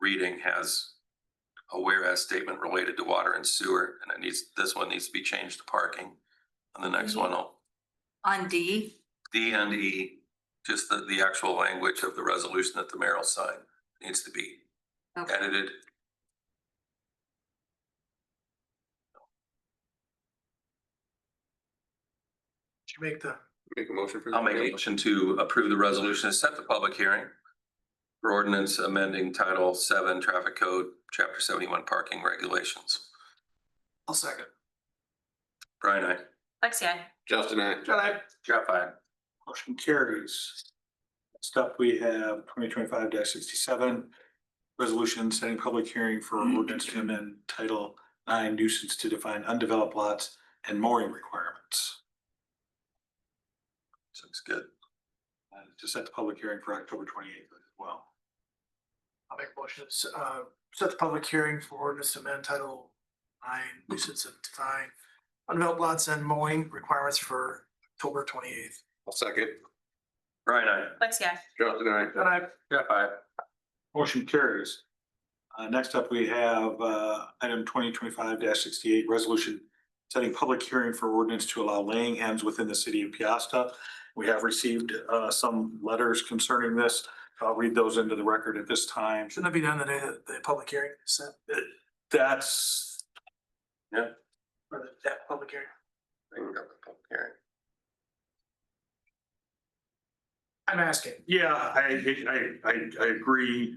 reading has a whereas statement related to water and sewer, and it needs, this one needs to be changed to parking. And the next one, will- On D, D and E, just the, the actual language of the resolution that the mayor will sign needs to be okay, edited. Did you make the? Make a motion for. I'll make a that? motion to approve the resolution and set the public hearing for ordinance amending Title Seven Traffic Code, Chapter Seventy-One Parking Regulations. I'll second. Brian, I. Lexi, I. Justin, I. John, I. Jeff, I. Motion carries. Next up, we have twenty twenty-five sixty-seven. Resolution setting public hearing for ordinance to amend Title Nine nuisance to define undeveloped lots and mooring requirements. Looks good. Uh, To set the public hearing for October twenty-eighth as well. I'll make a motion, to s- uh, set the public hearing for ordinance to amend title nine, nuisance and define undeveloped lots and mowing requirements for October twenty eighth. I'll second. Brian, I. Lexi, I. Justin, I. Then I, Jeff, I. Motion carries. Uh, next up, we have, uh, item twenty twenty-five sixty-eight, resolution setting public hearing for ordinance to allow laying hens within the city of Piasta. We have received, uh, some letters concerning this. I'll read those into the record at this time. shouldn't that be done the day that the public hearing is set, That's, or the, that public hearing? I'm asking. yeah, I, I, I, I agree.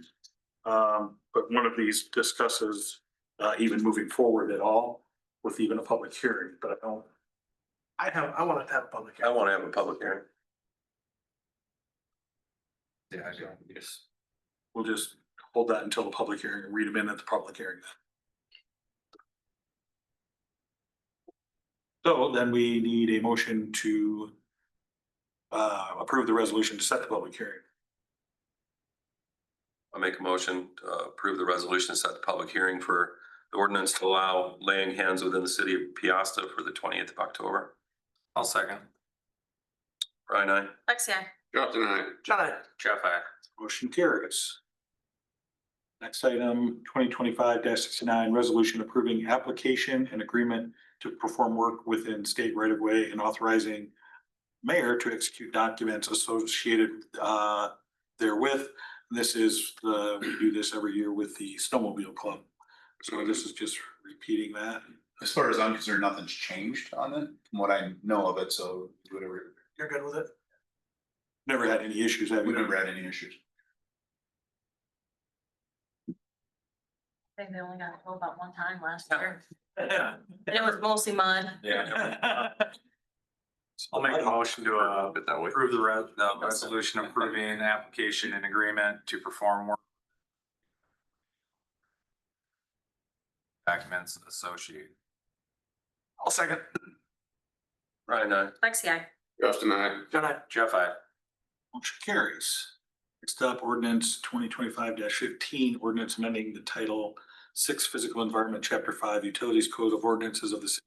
Um, but one of these discusses, uh, even moving forward at all with even a public hearing, but I don't I have, I wanted to have a public I hearing. want to have a public hearing. Yeah, I don't, yes. We'll just hold that until the public hearing and read them in at the public hearing. then. So then we need a motion to uh, approve the resolution to set the public hearing. I make a motion to uh, approve the resolution, to set the public hearing for the ordinance to allow laying hens within the city of Piasta for the twentieth of October. I'll second. Brian, I. Lexi, I. Justin, I. John, I, Jeff, I. Motion carries. Next item, twenty twenty-five sixty-nine, resolution approving application and agreement to perform work within state right of way and authorizing mayor to execute documents associated uh therewith. This is the, we do this every year with the snowmobile club. So this is just repeating that. As far as I'm concerned, nothing's changed on it, from what I know of it, so whatever, you're good with it? Never had any issues, have we you? never had any issues. I think they only got to go about one time last Yeah. year. And it was mostly mud. Yeah. I'll make a motion to uh, Put it that way. approve the re- the resolution approving an application and agreement to perform work. Documents associated. I'll second. Brian, I. Lexi, I. Justin, I. John, I, Jeff, I. Motion carries. Next up, ordinance twenty twenty-five fifteen, ordinance amending the title six physical environment, chapter five utilities code of ordinances of the city.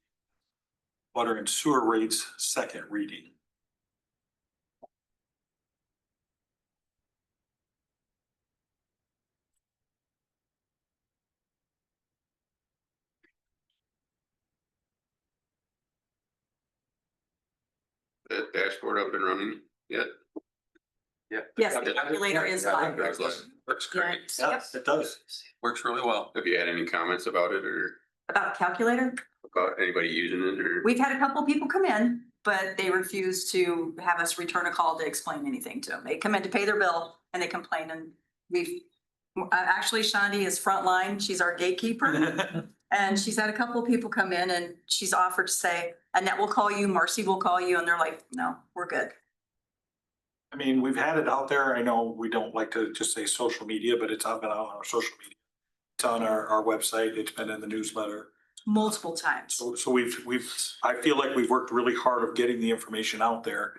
Water and sewer rates, second reading. That dashboard up and running. Yeah. yes, Yeah. the calculator is fine. Works great. Yep. It does. Works really well. Have you had any comments about it or About calculator, about anybody using it or? we've had a couple people come in, but they refuse to have us return a call to explain anything to them. They come in to pay their bill and they complain and we've, uh, actually Shandi is frontline, she's our gatekeeper. And she's had a couple of people come in and she's offered to say, Annette will call you, Marcy will call you, and they're like, no, we're good. I mean, we've had it out there. I know we don't like to just say social media, but it's out been out on our social media. It's on our, our website. It's been in the newsletter. Multiple times. So, so we've, we've, I feel like we've worked really hard of getting the information out there.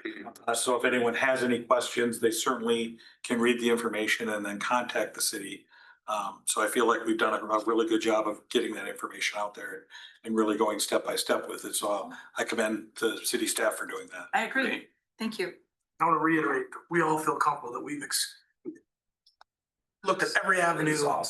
Uh, so if anyone has any questions, they certainly can read the information and then contact the city. Um, so I feel like we've done a, a really good job of getting that information out there and really going step by step with it. So uh, I commend the city staff for doing that. I agree. Thank you. I want to reiterate, we all feel comfortable that we've ex- looked at every avenue.